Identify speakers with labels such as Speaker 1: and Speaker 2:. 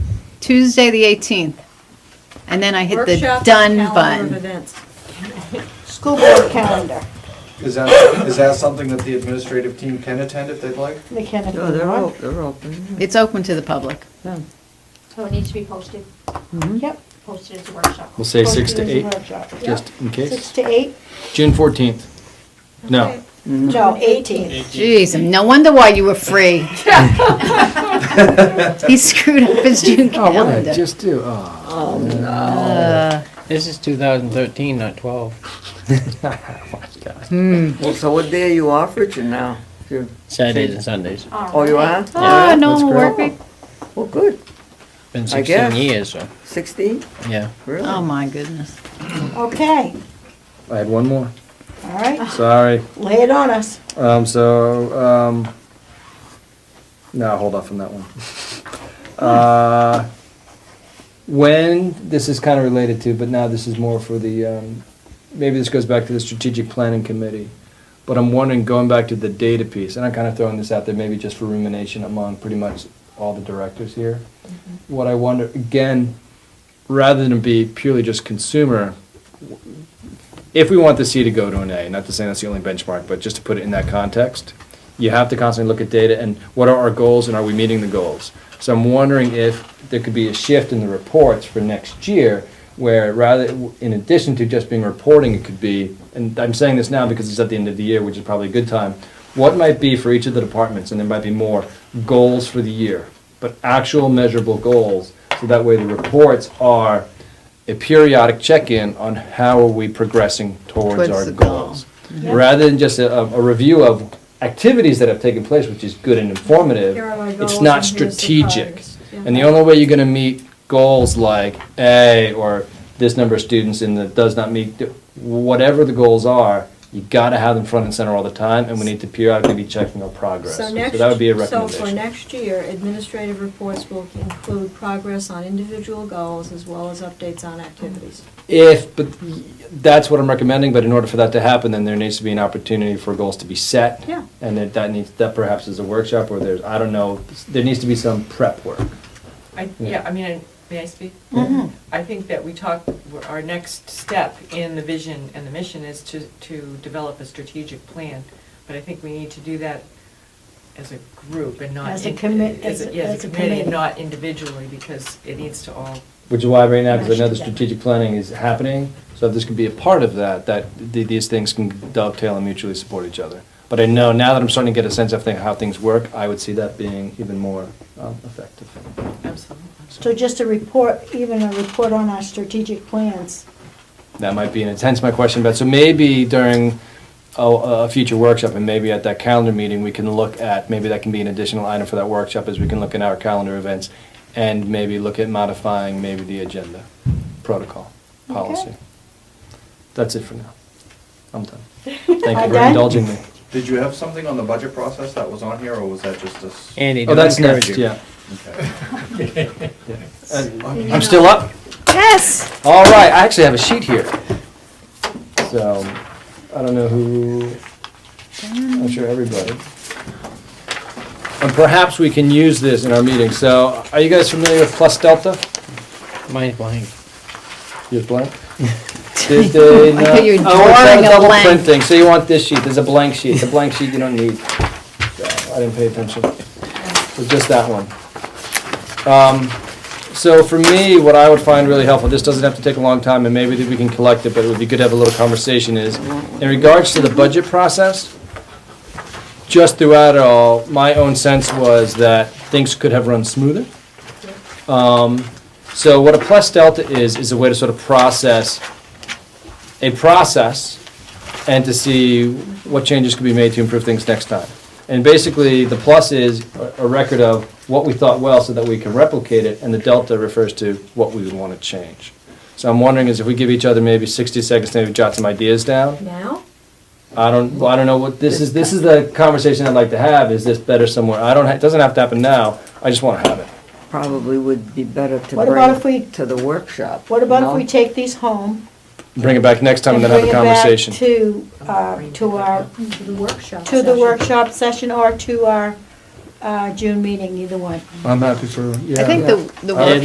Speaker 1: Tuesday, the 18th. And then I hit the
Speaker 2: Workshop
Speaker 1: done
Speaker 2: calendar of
Speaker 1: button.
Speaker 2: events.
Speaker 3: School board calendar,
Speaker 4: Is that, is that something that the administrative team can attend if they'd like?
Speaker 3: they can if
Speaker 5: Oh,
Speaker 3: they
Speaker 5: they're all,
Speaker 3: want.
Speaker 5: they're open.
Speaker 1: It's open to the public.
Speaker 5: yeah.
Speaker 6: So it needs to be posted,
Speaker 3: Yep.
Speaker 6: posted as a workshop.
Speaker 7: We'll say six
Speaker 3: Posted
Speaker 7: to
Speaker 3: as a
Speaker 7: eight,
Speaker 3: workshop.
Speaker 7: just in
Speaker 3: Six
Speaker 7: case.
Speaker 3: to eight?
Speaker 7: June fourteenth. No,
Speaker 2: Okay.
Speaker 3: No, 18.
Speaker 1: Jeez, and no wonder why you were free. He screwed up his June
Speaker 7: oh, what did I
Speaker 1: calendar.
Speaker 7: just do? Oh,
Speaker 1: Uh,
Speaker 8: This is 2013, not 12.
Speaker 5: Well, so what day are you off, Richard, now? You're-
Speaker 8: Saturdays and Sundays.
Speaker 5: Oh, you are?
Speaker 1: Oh,
Speaker 7: that's
Speaker 1: no, work
Speaker 7: great.
Speaker 1: week.
Speaker 5: Well, good.
Speaker 8: Been
Speaker 5: I guess.
Speaker 8: 16 years, so,
Speaker 5: Sixteen?
Speaker 8: yeah.
Speaker 5: Really?
Speaker 1: Oh, my goodness.
Speaker 3: Okay,
Speaker 7: I had one more.
Speaker 3: all right,
Speaker 7: Sorry.
Speaker 3: lay it on us.
Speaker 7: Um, so, um, no, hold off on that one. Uh, when, this is kind of related to, but now this is more for the, um, maybe this goes back to the strategic planning committee. But I'm wondering, going back to the data piece, and I'm kind of throwing this out there maybe just for rumination among pretty much all the directors here. What I wonder, again, rather than be purely just consumer, if we want the C to go to an A, not to say that's the only benchmark, but just to put it in that context, you have to constantly look at data and what are our goals and are we meeting the goals? So I'm wondering if there could be a shift in the reports for next year where rather, in addition to just being reporting, it could be, and I'm saying this now because it's at the end of the year, which is probably a good time, what might be for each of the departments, and there might be more, goals for the year, but actual measurable goals. So that way the reports are a periodic check-in on how are we progressing towards
Speaker 1: Towards
Speaker 7: our
Speaker 1: the goal.
Speaker 7: goals. Rather than just a, a a review of activities that have taken place, which is good and informative,
Speaker 2: Here are my goals
Speaker 7: it's not
Speaker 2: and here's the
Speaker 7: strategic.
Speaker 2: progress. Yeah.
Speaker 7: And the only way you're gonna meet goals like A, or this number of students and that does not meet, th- whatever the goals are, you gotta have them front and center all the time, and we need to periodically be checking our progress.
Speaker 2: So
Speaker 7: So
Speaker 2: next,
Speaker 7: that would be a
Speaker 2: so for
Speaker 7: recommendation.
Speaker 2: next year, administrative reports will include progress on individual goals as well as updates on activities.
Speaker 7: If, but that's what I'm recommending, but in order for that to happen, then there needs to be an opportunity for goals to be set.
Speaker 2: Yeah.
Speaker 7: And that, that needs, that perhaps is a workshop, or there's, I don't know, there needs to be some prep work.
Speaker 9: I,
Speaker 7: Yeah.
Speaker 9: yeah, I mean, I- may I speak?
Speaker 3: Mm-hmm.
Speaker 9: I think that we talk, our next step in the vision and the mission is to, to develop a strategic plan. But I think we need to do that as a group and not.
Speaker 3: As a
Speaker 9: in-
Speaker 3: commit- as a-
Speaker 9: yeah,
Speaker 3: as a
Speaker 9: committee,
Speaker 3: committee.
Speaker 9: and not individually, because it needs to all
Speaker 7: Which is why right now, because I know the
Speaker 3: Right.
Speaker 7: strategic planning is happening, so if this could be a part of that, that th- these things can dovetail and mutually support each other. But I know, now that I'm starting to get a sense of thi- how things work, I would see that being even more um, effective.
Speaker 9: Absolutely.
Speaker 3: So just a report, even a report on our strategic plans.
Speaker 7: That might be, and it's hence my question, but so maybe during a, a future workshop, and maybe at that calendar meeting, we can look at, maybe that can be an additional item for that workshop, is we can look at our calendar events, and maybe look at modifying maybe the agenda, protocol, policy.
Speaker 3: Okay.
Speaker 7: That's it for now. I'm done. Thank
Speaker 3: Are
Speaker 7: you for
Speaker 3: done?
Speaker 7: indulging me.
Speaker 4: Did you have something on the budget process that was on here, or was that just us?
Speaker 8: Andy,
Speaker 7: Oh,
Speaker 8: don't
Speaker 7: that's
Speaker 8: encourage
Speaker 7: next,
Speaker 8: you.
Speaker 7: yeah.
Speaker 4: Okay.
Speaker 7: Uh, I'm still up?
Speaker 1: Yes,
Speaker 7: All right, I actually have a sheet here. So, I don't know who, I'm sure everybody. And perhaps we can use this in our meeting. So, are you guys familiar with plus delta?
Speaker 8: Mine's blank.
Speaker 7: Here's blank. Did they not-
Speaker 1: you're
Speaker 7: Oh, it's
Speaker 1: drawing a
Speaker 7: double
Speaker 1: blank.
Speaker 7: printing. So you want this sheet, there's a blank sheet. The blank sheet you don't need. So, I didn't pay attention. So just that one. Um, So for me, what I would find really helpful, this doesn't have to take a long time, and maybe that we can collect it, but it would be good to have a little conversation, is in regards to the budget process, just throughout it all, my own sense was that things could have run smoother. Um, So what a plus delta is, is a way to sort of process, a process, and to see what changes could be made to improve things next time. And basically, the plus is a- a record of what we thought well so that we can replicate it, and the delta refers to what we would want to change. So I'm wondering is if we give each other maybe 60 seconds to maybe jot some ideas down,
Speaker 2: Now?
Speaker 7: I don't, well, I don't know what, this is, this is the conversation I'd like to have, is this better somewhere? I don't, ha- it doesn't have to happen now, I just want to have it.
Speaker 5: Probably would be better to
Speaker 3: What about if
Speaker 5: bring
Speaker 3: we,
Speaker 5: it to the workshop.
Speaker 3: what about
Speaker 5: no?
Speaker 3: if we take these home?
Speaker 7: Bring it back next time and then have a conversation.
Speaker 3: bring it back to, uh, to our,
Speaker 2: To the workshop
Speaker 3: to the
Speaker 2: session.
Speaker 3: workshop session or to our uh, June meeting, either one.
Speaker 7: I'm happy for, yeah.
Speaker 1: I think the, the
Speaker 7: Uh,
Speaker 1: work